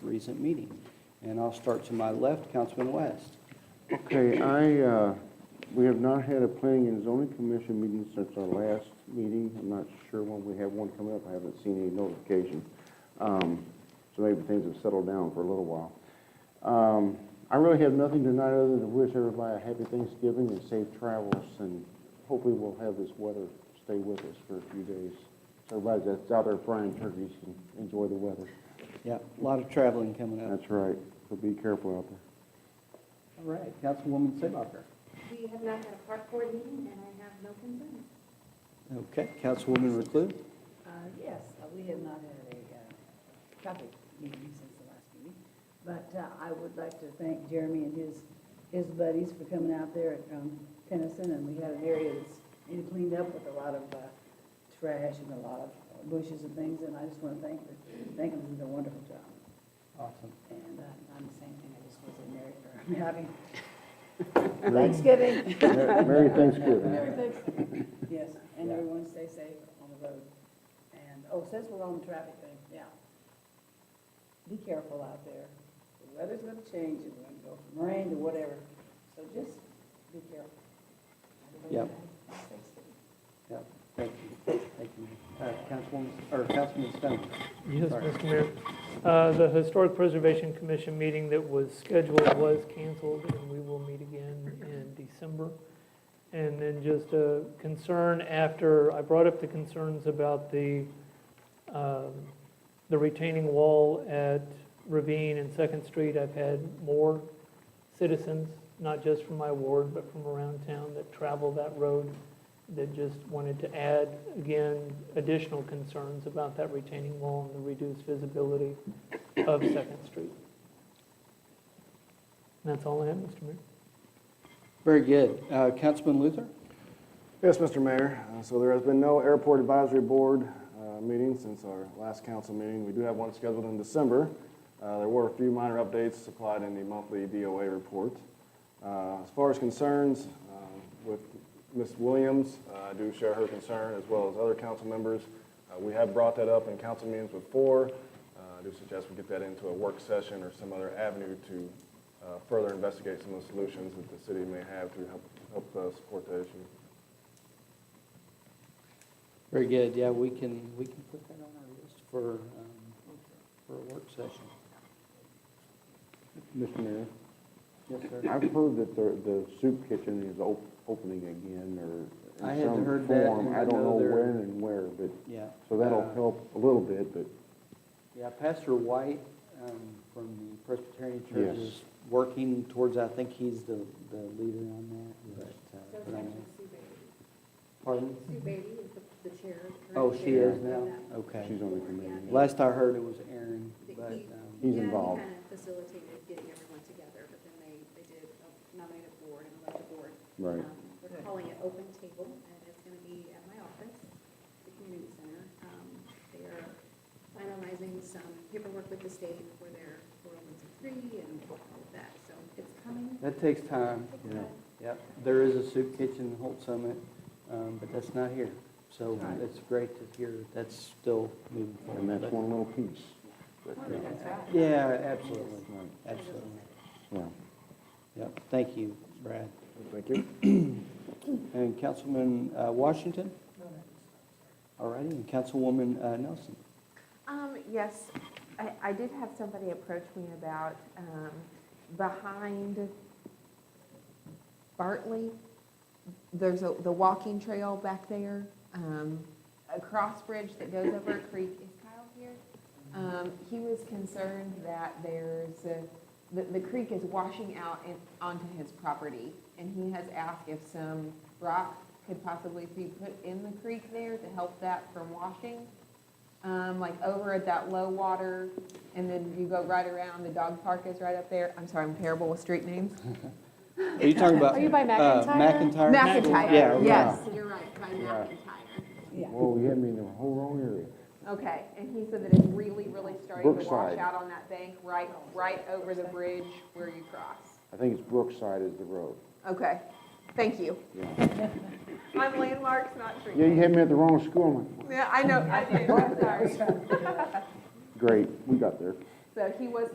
recent meeting. And I'll start to my left, Councilman West. Okay, I, uh, we have not had a planning and zoning commission meeting since our last meeting. I'm not sure when we have one coming up. I haven't seen any notification. Um, So maybe things have settled down for a little while. Um, I really have nothing tonight other than wish everybody a happy Thanksgiving and safe travels. And hopefully we'll have this weather stay with us for a few days. So everybody that's out there frying turkeys can enjoy the weather. Yeah, a lot of traveling coming up. That's right. So be careful out there. All right, Councilwoman Seebacher. We have not had a park board meeting, and I have no concerns. Okay, Councilwoman Recluse. Uh, Yes, uh, we have not had a uh, traffic meeting since the last meeting, but uh, I would like to thank Jeremy and his, his buddies for coming out there at um, Tennyson, and we had an area that's been cleaned up with a lot of uh, trash and a lot of bushes and things, and I just want to thank, the- thank them for their wonderful job. Awesome. And uh, I'm the same thing, I just was in there for happy Thanksgiving. Merry Thanksgiving. Yes, and everyone stay safe on the road. And, oh, since we're on the traffic thing, yeah. Be careful out there. The weather's gonna change, it's gonna go from rain to whatever, so just be careful. Yep. Yeah, thank you, thank you. Uh, Councilwoman, or Councilman Stone. Yes, Sorry. Mr. Mayor. Uh, The Historic Preservation Commission meeting that was scheduled was canceled, and we will meet again in December. And then just a concern after, I brought up the concerns about the, um, the retaining wall at Ravine and Second Street. I've had more citizens, not just from my ward, but from around town that travel that road that just wanted to add, again, additional concerns about that retaining wall and the reduced visibility of Second Street. And that's all I have, Mr. Mayor. Very good. Uh, Councilman Luther? Yes, Mr. Mayor. Uh, So there has been no Airport Advisory Board uh, meeting since our last council meeting. We do have one scheduled in December. Uh, There were a few minor updates supplied in the monthly DOA report. Uh, As far as concerns um, with Ms. Williams, uh, I do share her concern as well as other council members. Uh, We have brought that up in council meetings before. Uh, I do suggest we get that into a work session or some other avenue to uh, further investigate some of the solutions that the city may have to help- help uh, support that issue. Very good, yeah, we can, we can put that on our list for, um, for a work session. Mr. Mayor, Yes, sir. I've heard that the, the soup kitchen is op- opening again or I in hadn't some heard that, form. and I I don't know know they're- when and where, but, Yeah. so that'll Uh, help a little bit, but Yeah, Pastor White um, from the Presbyterian Church Yes. is working towards, I think he's the, the leader on that, but, So uh, it's but I'm- actually Sue Beatty. pardon? Sue Beatty is the- the chair. current Oh, she chair is of now? that. Okay. she's on the committee. now. Last I heard, it was Aaron, He- but, he- um, He's yeah, he involved. kind of facilitated getting everyone together, but then they, they did uh, nominate a board and elect a board. Right. Um, They're calling it Open Table, and it's going to be at my office, the community center. Um, They are finalizing some paperwork with the state for their 401c3 and all of that, so it's coming. that takes time. It's, uh, Yep, there is a soup kitchen in Holt Summit, um, but that's not here. So Right. it's great to hear that that's still moving forward. And that's But- one little piece. but, uh, Yeah, absolutely, right, absolutely. Yeah. Yep, thank you, Brad. Thank you. And Councilman uh, Washington? All righty, and Councilwoman uh, Nelson? Um, yes, I, I did have somebody approach me about, um, behind Bartley, there's a, the walking trail back there, um, a cross bridge that goes over a creek. Is Kyle here? Um, he was concerned that there's a, the, the creek is washing out in, onto his property. And he has asked if some rock could possibly be put in the creek there to help that from washing um, like over at that low water, and then you go right around, the dog park is right up there. I'm sorry, I'm terrible with street names. Are you talking about? Are you by McIntyre? McIntyre? Yeah, McIntyre, okay. yes, you're right, by Yeah. McIntyre. Yeah. Well, you had me in the whole wrong area. Okay, and he said that it's really, really starting to Brookside. wash out on that bank, right, right over the bridge where you cross. I think it's Brookside is the road. Okay, thank you. Yeah, I'm landmarks, not street Yeah, you names. had me at the wrong school. I'm like, Yeah, I know, I did, I'm sorry. Great, we got there. So he was